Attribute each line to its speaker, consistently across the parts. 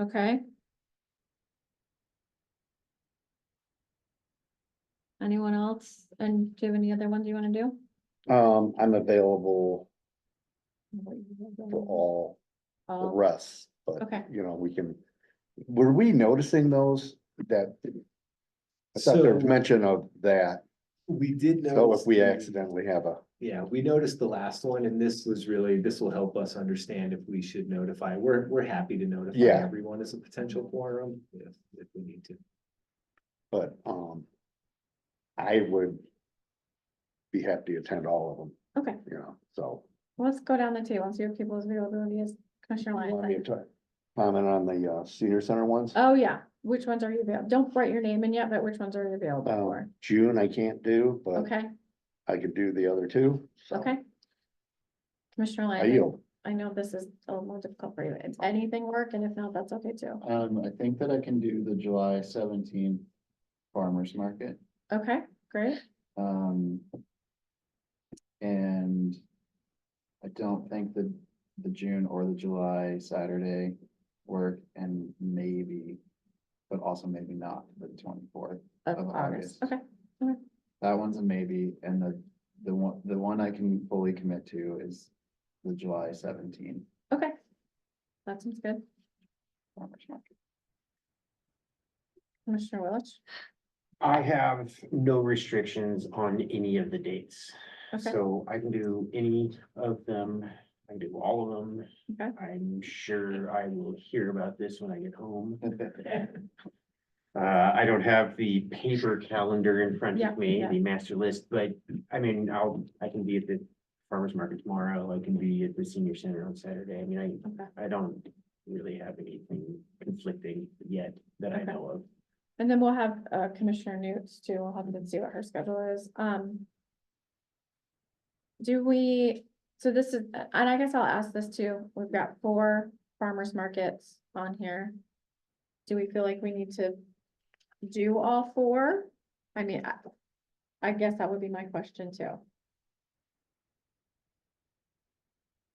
Speaker 1: Okay. Anyone else? And do you have any other ones you wanna do? Mm-hmm.
Speaker 2: Um, I'm available for all the
Speaker 1: All-
Speaker 2: rest, but
Speaker 1: Mm-hmm. Okay,
Speaker 2: you know, we can, were we noticing those that? I thought there was
Speaker 3: So-
Speaker 2: mention of that,
Speaker 3: We did know.
Speaker 2: so if we accidentally have a,
Speaker 3: Yeah, we noticed the last one and this was really, this will help us understand if we should notify. We're, we're happy to notify
Speaker 2: Yeah.
Speaker 3: everyone as a potential quorum if, if we need to.
Speaker 2: but um. I would. Be happy to attend all of them,
Speaker 1: okay,
Speaker 2: you know, so.
Speaker 1: let's go down the table and see if people's availability is. Commissioner Lyons.
Speaker 2: Want me to try- Comment on the uh senior center ones,
Speaker 1: Oh, yeah, which ones are you available? Don't write your name in yet, but which ones are you available for?
Speaker 2: um, June I can't do, but
Speaker 1: Okay,
Speaker 2: I could do the other two. so
Speaker 1: okay. Commissioner
Speaker 2: I
Speaker 1: Lyons,
Speaker 2: yield,
Speaker 1: I know this is a little more difficult for you. Is anything work? And if not, that's okay too.
Speaker 4: Um, I think that I can do the July seventeenth farmer's market,
Speaker 1: Okay, great.
Speaker 4: um. And I don't think the, the June or the July Saturday work and maybe, but also maybe not the twenty-fourth.
Speaker 1: Of
Speaker 4: Of
Speaker 1: August,
Speaker 4: August.
Speaker 1: okay.
Speaker 4: That one's a maybe, and the, the one, the one I can fully commit to is the July seventeenth
Speaker 1: Okay. That sounds good.
Speaker 4: farmer's market.
Speaker 1: Commissioner Willich.
Speaker 5: I have no restrictions on any of the dates,
Speaker 1: Okay,
Speaker 5: so I can do any of them, I can do all of them.
Speaker 1: Okay.
Speaker 5: I'm sure I will hear about this when I get home. Uh, I don't have the paper calendar in front
Speaker 1: Yeah,
Speaker 5: of me,
Speaker 1: yeah.
Speaker 5: the master list, but I mean, I'll, I can be at the farmer's market tomorrow, I can be at the senior center on Saturday, I mean,
Speaker 1: okay.
Speaker 5: I, I don't really have anything conflicting yet that I
Speaker 1: Okay.
Speaker 5: know of.
Speaker 1: And then we'll have uh, Commissioner Newt too. We'll have to see what her schedule is. Um. Do we, so this is, and I guess I'll ask this too. We've got four farmers markets on here. Do we feel like we need to do all four? I mean, I, I guess that would be my question too.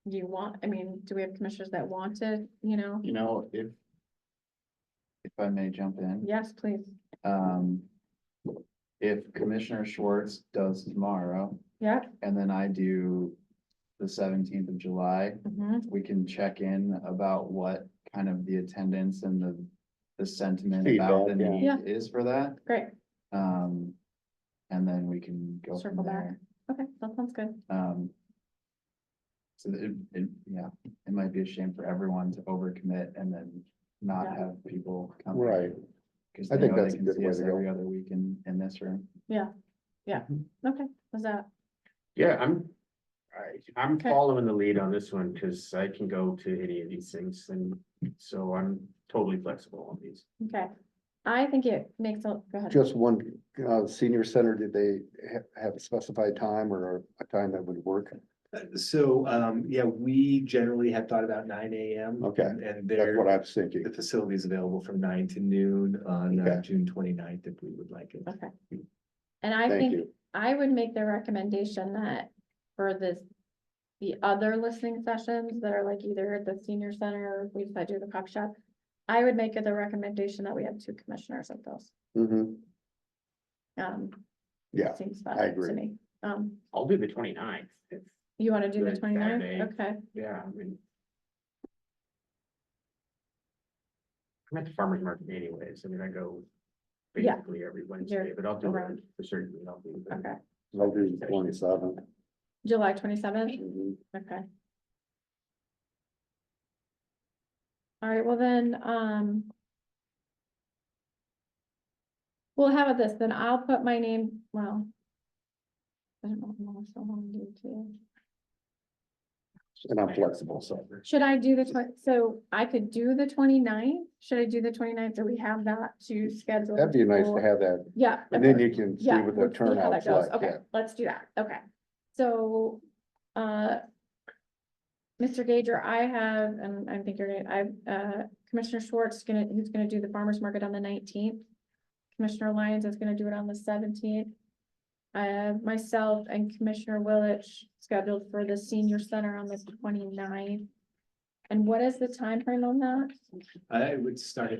Speaker 1: Do you want, I mean, do we have commissioners that want to, you know?
Speaker 4: You know, if, if I may jump in.
Speaker 1: Yes, please.
Speaker 4: Um. If Commissioner Schwartz does tomorrow
Speaker 1: Yep.
Speaker 4: and then I do the seventeenth of July,
Speaker 1: mhm.
Speaker 4: we can check in about what kind of the attendance and the. The sentiment about the
Speaker 2: Feedback,
Speaker 4: need
Speaker 1: yeah.
Speaker 4: is for that,
Speaker 1: Great.
Speaker 4: um. And then we can go from
Speaker 1: Circle back.
Speaker 4: there,
Speaker 1: Okay, that sounds good.
Speaker 4: um. So it, it, yeah, it might be a shame for everyone to overcommit and then not
Speaker 1: Yeah.
Speaker 4: have people come.
Speaker 2: right,
Speaker 4: Cause
Speaker 2: I
Speaker 4: they
Speaker 2: think
Speaker 4: know
Speaker 2: that's
Speaker 4: they
Speaker 2: a
Speaker 4: can
Speaker 2: good
Speaker 4: see
Speaker 2: way
Speaker 4: us
Speaker 2: to go.
Speaker 4: every other week in, in this room.
Speaker 1: Okay, was that,
Speaker 5: Yeah, I'm, I, I'm
Speaker 1: Okay.
Speaker 5: following the lead on this one, cause I can go to any of these things, and so I'm totally flexible on these.
Speaker 1: okay. I think it makes, a- go ahead.
Speaker 2: just one, uh, senior center, did they ha- have a specified time or a time that would work?
Speaker 3: Uh, So, um, yeah, we generally have thought about nine AM.
Speaker 2: Okay,
Speaker 3: And
Speaker 2: That's what
Speaker 3: there,
Speaker 2: I was thinking,
Speaker 3: the facility is available from nine to noon on uh,
Speaker 2: Okay.
Speaker 3: June 29th if we would like it.
Speaker 1: Okay. And I
Speaker 2: thank
Speaker 1: think
Speaker 2: you,
Speaker 1: I would make the recommendation that for this, the other listening sessions that are like either at the senior center, or if we decide to do the cop shop, I would make it the recommendation that we have two commissioners at those.
Speaker 2: Mhm,
Speaker 1: Um,
Speaker 2: yeah,
Speaker 1: seems
Speaker 2: I
Speaker 1: better to
Speaker 2: agree.
Speaker 1: me. Um,
Speaker 5: I'll do the 29th. if-
Speaker 1: you want to do the
Speaker 5: Good,
Speaker 1: 29th?
Speaker 5: Saturday.
Speaker 1: Okay,
Speaker 5: yeah, I mean. I'm at the farmer's market anyways, I mean, I go
Speaker 1: Yeah.
Speaker 5: basically every Wednesday, but I'll do
Speaker 1: around.
Speaker 5: it for certain, I'll do it.
Speaker 1: okay.
Speaker 2: I'll do Mm-hmm. twenty seven.
Speaker 1: July twenty-seventh? Okay. All right, well then, um. Well, how about this, then I'll put my name, well. I don't know what else I want to do too.
Speaker 2: And I'm flexible, so.
Speaker 1: Should I do the twen- so I could do the 29th. should I do the 29th? do we have that to schedule?
Speaker 2: That'd be nice to
Speaker 1: for-
Speaker 2: have that,
Speaker 1: Yeah.
Speaker 2: and then
Speaker 1: okay.
Speaker 2: you can see
Speaker 1: Yeah,
Speaker 2: what the
Speaker 1: we'll see how that
Speaker 2: turnout's
Speaker 1: goes.
Speaker 2: like,
Speaker 1: Okay,
Speaker 2: yeah.
Speaker 1: let's do that, okay. So, uh. Mr. Gager, I have, and I think you're gonna, I, uh, Commissioner Schwartz is gonna, he's gonna do the farmer's market on the nineteenth. Commissioner Lyons is gonna do it on the seventeenth. Uh, myself and Commissioner Willich scheduled for the senior center on the 29th. And what is the timeframe on that?
Speaker 5: I would start at